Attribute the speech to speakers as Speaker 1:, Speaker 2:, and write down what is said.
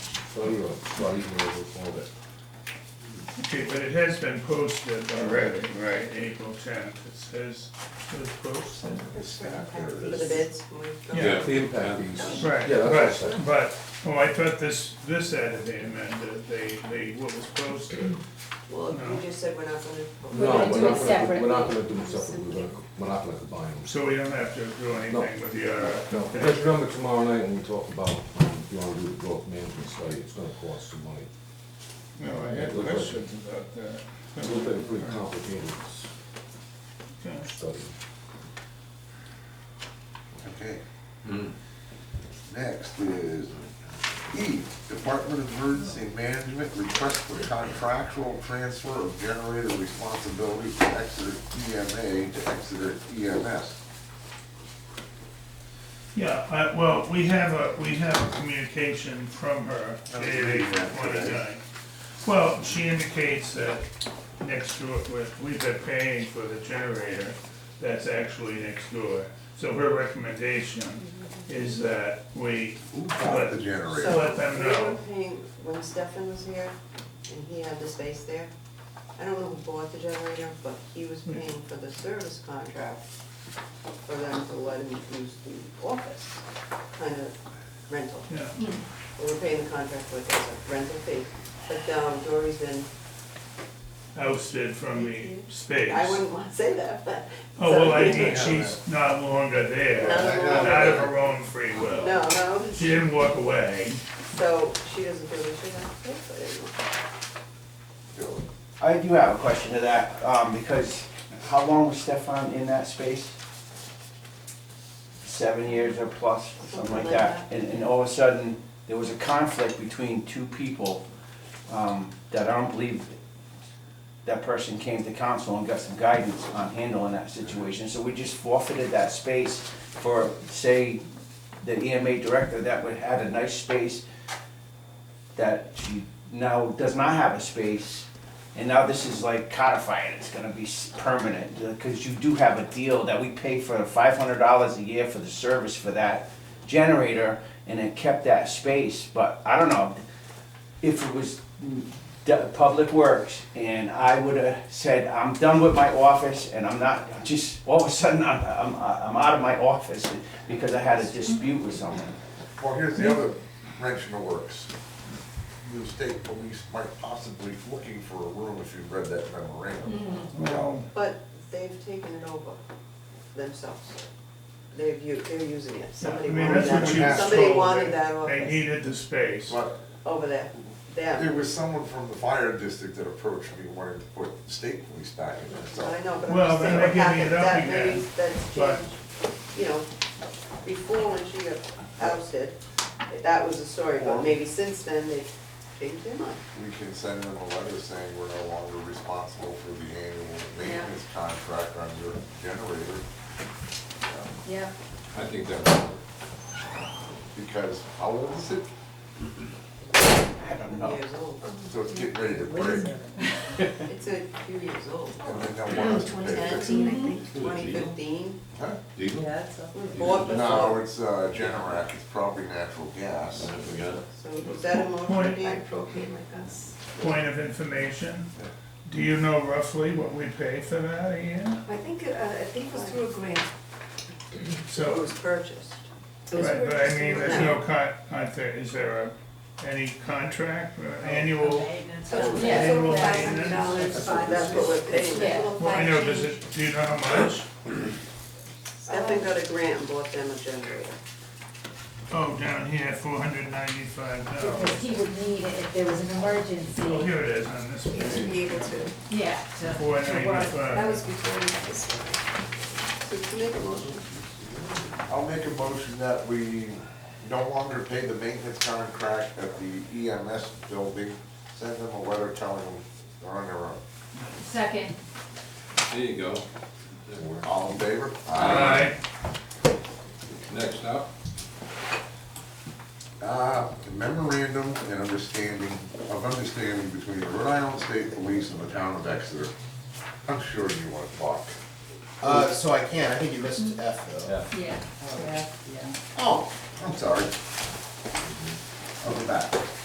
Speaker 1: soil, so you can overflow it.
Speaker 2: Okay, but it has been posted
Speaker 3: Right,
Speaker 2: already,
Speaker 3: right.
Speaker 2: April tenth, it says, it was posted.
Speaker 4: For the bids, when we go.
Speaker 2: Yeah.
Speaker 1: The impact fees.
Speaker 2: Right,
Speaker 1: Yeah, that's what I
Speaker 2: but, but, oh, I thought this, this had to be amended, they, they, what was posted.
Speaker 4: Well, you just said we're not gonna.
Speaker 1: No,
Speaker 5: gonna do
Speaker 1: we're
Speaker 5: it
Speaker 1: not gonna,
Speaker 5: separate.
Speaker 1: do- we're not gonna do it separately, we're gonna, we're not gonna combine them.
Speaker 2: So we don't have to do anything with the uh,
Speaker 1: No,
Speaker 2: RFP.
Speaker 1: let's remember tomorrow night when we talk about, um, if you wanna do the growth management study, it's gonna cost some money.
Speaker 3: No, I had questions about that.
Speaker 1: It's a little bit pretty complicated s- study.
Speaker 6: Okay. Next is E, Department of Emergency Management, request for contractual transfer of generator responsibility from Exeter EMA to Exeter E EMS.
Speaker 2: Yeah, I, well, we have a, we have a communication from her,
Speaker 6: was
Speaker 2: dated
Speaker 6: reading that
Speaker 2: twenty-nine.
Speaker 6: today.
Speaker 2: Well, she indicates that next door, we- we've been paying for the generator that's actually next door. So her recommendation is that we
Speaker 6: Who bought the
Speaker 4: So
Speaker 6: generator?
Speaker 2: Let them
Speaker 4: we
Speaker 2: know.
Speaker 4: were paying, when Stefan was here, and he had the space there, I don't know who bought the generator, but he was paying for the service contract for them to let him use the office, kind of rental.
Speaker 2: Yeah,
Speaker 4: But We're paying the contract with as a rental fee, but um, Dory's been,
Speaker 2: ousted from the space.
Speaker 4: I wouldn't want to say that, but.
Speaker 2: Oh, well, I
Speaker 4: so-
Speaker 2: mean, she's not longer there,
Speaker 4: Not
Speaker 2: not
Speaker 4: longer
Speaker 2: of
Speaker 4: there.
Speaker 2: her own free will.
Speaker 4: No, no,
Speaker 2: She didn't walk away.
Speaker 4: so she doesn't feel that she has to pay for it anymore.
Speaker 7: I do have a question to that, um, because how long was Stefan in that space? Seven years or plus, something like that, and, and all of a sudden, there was a conflict between two people, um, that I don't believe that person came to council and got some guidance on handling that situation, so we just forfeited that space for, say, the EMA director that would had a nice space, that she now does not have a space, and now this is like codified, it's gonna be s- permanent, because you do have a deal that we pay for five hundred dollars a year for the service for that generator, and it kept that space, but I don't know, if it was mm, the Public Works, and I would've said, I'm done with my office, and I'm not, I'm just, all of a sudden, I'm, I'm, I'm out of my office, because I had a dispute with someone.
Speaker 6: Well, here's the other wrench in the works. The state police might possibly be looking for a room if you read that memorandum.
Speaker 3: Well,
Speaker 4: But they've taken it over themselves. They've, u- they're using it. Somebody
Speaker 2: I mean,
Speaker 4: wanted
Speaker 2: that's what she
Speaker 4: that,
Speaker 2: was
Speaker 4: somebody
Speaker 2: told,
Speaker 4: wanted
Speaker 2: that
Speaker 4: that
Speaker 2: They
Speaker 4: office
Speaker 2: needed the space.
Speaker 6: But
Speaker 4: over there,
Speaker 6: There
Speaker 4: them.
Speaker 6: was someone from the fire district that approached me wanting to put state police back in there,
Speaker 4: But I
Speaker 6: so.
Speaker 4: know, but I'm
Speaker 2: Well,
Speaker 4: just
Speaker 2: then
Speaker 4: saying
Speaker 2: they're
Speaker 4: what
Speaker 2: giving it
Speaker 4: happened,
Speaker 2: up
Speaker 4: that maybe
Speaker 2: again,
Speaker 4: that's
Speaker 2: but-
Speaker 4: changed, you know, before when she got ousted, that was the story, but
Speaker 6: Or-
Speaker 4: maybe since then, they've changed their mind.
Speaker 6: We can send them a letter saying we're no longer responsible for the annual maintenance contract on your generator. um,
Speaker 5: Yeah.
Speaker 1: I think that,
Speaker 6: Because how old is it?
Speaker 7: I don't know.
Speaker 4: Years old.
Speaker 6: So it's getting ready to break,
Speaker 4: It's a few years old,
Speaker 6: and then they'll want us to pay fix it.
Speaker 4: twenty fifteen.
Speaker 6: Huh?
Speaker 8: Yeah, it's a-
Speaker 4: Bought
Speaker 6: No,
Speaker 4: before,
Speaker 6: it's, uh, Generac, it's probably natural gas.
Speaker 4: so is that a motion,
Speaker 2: Point.
Speaker 4: Dan?
Speaker 8: propane like us.
Speaker 2: Point of information, do you know roughly what we pay for that a year?
Speaker 8: I think, uh, I think it was through a grant.
Speaker 4: It
Speaker 2: So,
Speaker 4: was purchased.
Speaker 8: It was
Speaker 2: right, but I
Speaker 8: purchased
Speaker 2: mean,
Speaker 8: through a
Speaker 2: there's
Speaker 8: grant.
Speaker 2: no con, aren't there, is there a, any contract or
Speaker 4: Oh,
Speaker 2: annual?
Speaker 8: So,
Speaker 5: Yeah.
Speaker 8: yeah, total
Speaker 2: Yeah.
Speaker 8: five hundred dollars, five.
Speaker 4: That's what we're paying.
Speaker 5: Yeah.
Speaker 8: Total
Speaker 2: Well, I know,
Speaker 8: five
Speaker 2: does
Speaker 8: change.
Speaker 2: it, do you know how much?
Speaker 4: Stefan got a grant and bought them a generator.
Speaker 2: Oh, down here, four hundred ninety-five dollars.
Speaker 5: Because he would need it if there was an
Speaker 2: Oh,
Speaker 5: emergency.
Speaker 2: here it is on this
Speaker 8: To
Speaker 2: page,
Speaker 8: be able to.
Speaker 5: Yeah. to-
Speaker 2: four
Speaker 8: That was
Speaker 2: ninety-five.
Speaker 8: before we had this one.
Speaker 4: So to make a motion,
Speaker 6: I'll make a motion that we no longer pay the maintenance contract at the EMS building. Send them a letter telling them they're on their own.
Speaker 5: Second.
Speaker 9: There you go.
Speaker 6: All in favor?
Speaker 2: Aye.
Speaker 9: Next up,
Speaker 6: Uh, memorandum and understanding, of understanding between the Rhode Island State Police and the town of Exeter. I'm sure you want to talk.
Speaker 10: Uh, so I can, I think you missed F though.
Speaker 5: Yeah.
Speaker 6: Oh, I'm sorry. I'll go back.